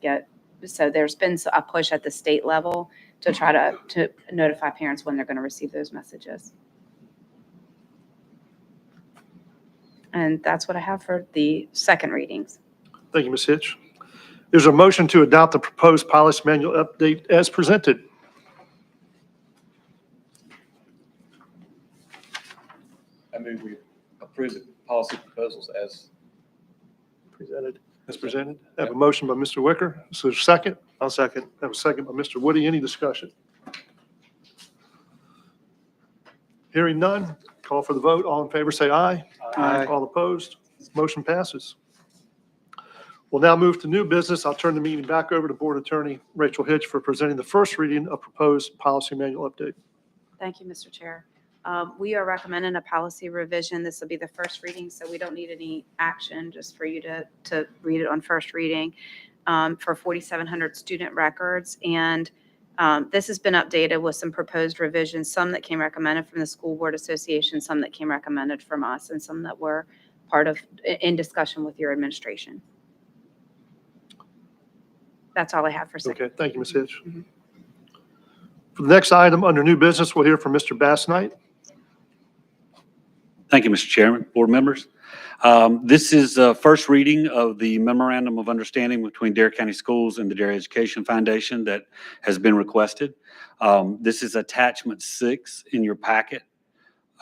get, so there's been s- a push at the state level to try to, to notify parents when they're going to receive those messages. And that's what I have for the second readings. Thank you, Ms. Hitch. There's a motion to adopt the proposed policy manual update as presented. I move we approve the policy proposals as. Presented. As presented. I have a motion by Mr. Wicker. Is there a second? I'll second. I have a second by Mr. Woody. Any discussion? Hearing none, call for the vote. All in favor, say aye. All opposed? Motion passes. We'll now move to new business. I'll turn the meeting back over to Board Attorney Rachel Hitch for presenting the first reading of proposed policy manual update. Thank you, Mr. Chair. Um, We are recommending a policy revision. This will be the first reading, so we don't need any action, just for you to, to read it on first reading um, for 4,700 student records. And um, this has been updated with some proposed revisions, some that came recommended from the School Board Association, some that came recommended from us, and some that were part of, i- in discussion with your administration. That's all I have for second. Okay, thank you, Ms. Hitch. Mhm. For the next item, under new business, we'll hear from Mr. Bass Knight. Thank you, Mr. Chairman, board members. Um, This is the first reading of the memorandum of understanding between Dare County Schools and the Dare Education Foundation that has been requested. Um, This is attachment six in your packet.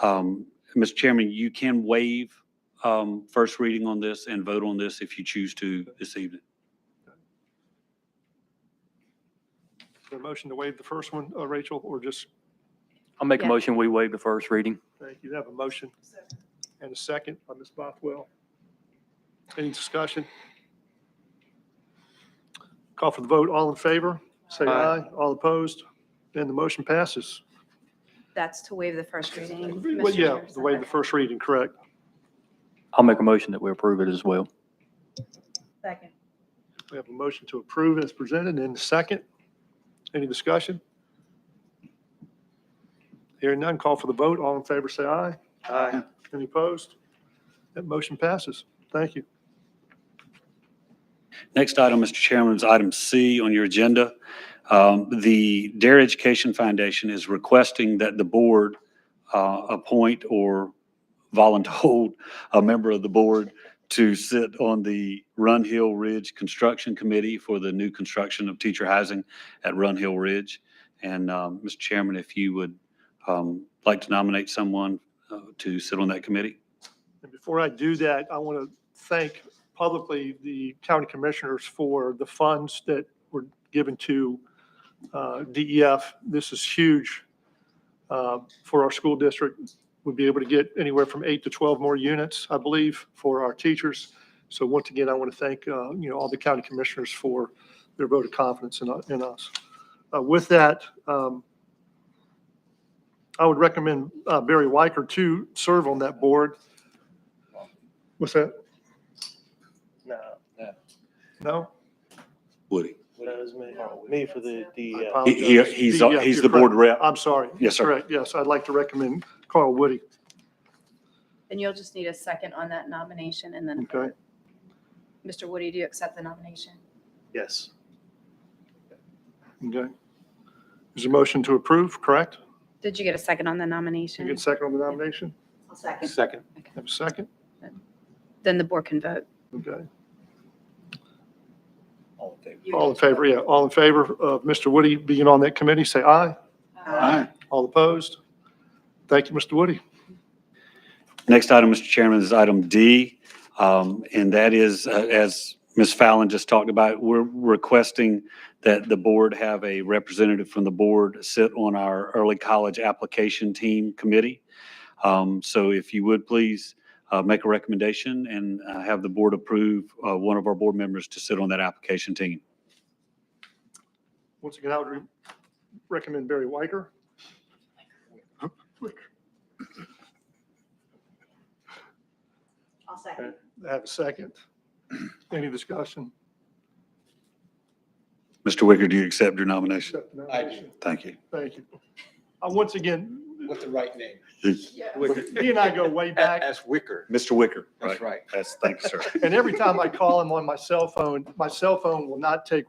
Um, Mr. Chairman, you can waive um, first reading on this and vote on this if you choose to this evening. Is there a motion to waive the first one, uh, Rachel, or just, I'll make a Yeah. motion, we waive the first reading. thank you, have a motion and a second by Ms. Bothwell. Any discussion? Call for the vote, all in favor, say Aye. aye, all opposed, and the motion passes. That's to waive the first reading. Well, Mr. yeah, Chair, the waive second. the first reading, correct. I'll make a motion that we approve it as well. Second. We have a motion to approve as presented and a second. Any discussion? Hearing none, call for the vote. All in favor, say aye. Aye. Any opposed? That motion passes. Thank you. Next item, Mr. Chairman, is item C on your agenda. Um, The Dare Education Foundation is requesting that the board uh, appoint or voluntold a member of the board to sit on the Run Hill Ridge Construction Committee for the new construction of teacher housing at Run Hill Ridge. And, um, Mr. Chairman, if you would um, like to nominate someone uh, to sit on that committee? And before I do that, I want to thank publicly the county commissioners for the funds that were given to uh, DEF. This is huge uh, for our school district. We'll be able to get anywhere from eight to 12 more units, I believe, for our teachers. So once again, I want to thank, uh, you know, all the county commissioners for their vote of confidence in in us. Uh, With that, um, I would recommend uh, Barry Weicker to serve on that board. What's that? No, No? Woody? that was me, me for the, I the, uh, apologize. He's, Yeah, he's you're the board correct. rep. I'm sorry. Yes, sir. Correct, yes. I'd like to recommend Carl Woody. And you'll just need a second on that nomination and then, Okay. Mr. Woody, do you accept the nomination? yes, Okay. There's a motion to approve, correct? Did you get a second on the You nomination? get a second on the nomination? second. second, Have a second? Then the board can vote. Okay. All in favor? All in favor, yeah, all in favor of Mr. Woody being on that committee, say aye. All opposed? Thank you, Mr. Woody. Next item, Mr. Chairman, is item D, um, and that is, uh, as Ms. Fallon just talked about, we're requesting that the board have a representative from the board sit on our early college application team committee. Um, So if you would please uh, make a recommendation and uh, have the board approve uh, one of our board members to sit on that application team. Once again, I would re- recommend Barry Weicker. I'll second. Have a second. Any discussion? Mr. Wicker, do you accept your nomination? Accept the nomination. Thank you. Thank you. Uh, Once again, with the right name. He and I go way back. That's Wicker. Mr. Wicker. That's right. That's, thank you, sir. And every time I call him on my cell phone, my cell phone will not take